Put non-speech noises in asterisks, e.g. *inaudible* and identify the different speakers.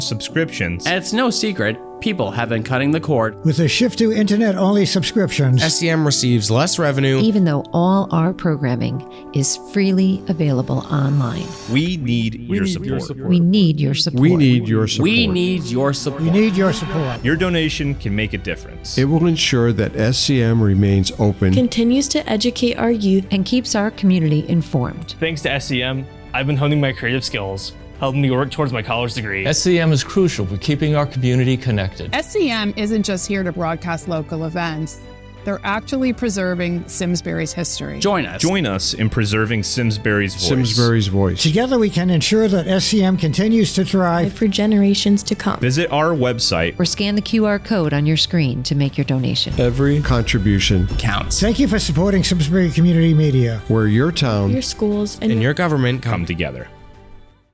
Speaker 1: subscriptions.
Speaker 2: And it's no secret, people have been cutting the cord.
Speaker 3: With a shift to internet only subscriptions,
Speaker 4: E
Speaker 5: SEM receives less revenue.
Speaker 6: *laughs* even though all our programming is freely available online.
Speaker 1: We need your
Speaker 4: need
Speaker 1: support.
Speaker 4: your
Speaker 1: your
Speaker 4: support.
Speaker 6: We need your support.
Speaker 4: We need your support.
Speaker 2: We need your support.
Speaker 3: we need your support.
Speaker 1: donation can make a difference.
Speaker 4: It will ensure that SCM remains open.
Speaker 7: continues to educate our youth
Speaker 6: and keeps our community informed.
Speaker 8: Thanks to SEM, I've been honing my creative skills, helping me work towards my college degree.
Speaker 9: SCM is crucial for keeping our community connected.
Speaker 10: SCM E isn't just here to broadcast local events, they're actually preserving Simsbury's history.
Speaker 2: Join us.
Speaker 1: Join us in preserving Simsbury's voice.
Speaker 4: Simsbury's voice.
Speaker 3: Together we can ensure that SCM continues to thrive.
Speaker 7: for generations to come.
Speaker 1: Visit our website.
Speaker 6: Or scan the QR code on your screen to make your donation.
Speaker 4: Every contribution
Speaker 2: counts.
Speaker 3: Thank you for supporting Simsbury Community Media.
Speaker 4: where your town
Speaker 7: Your schools and
Speaker 5: And your government
Speaker 1: Come
Speaker 5: come
Speaker 1: together.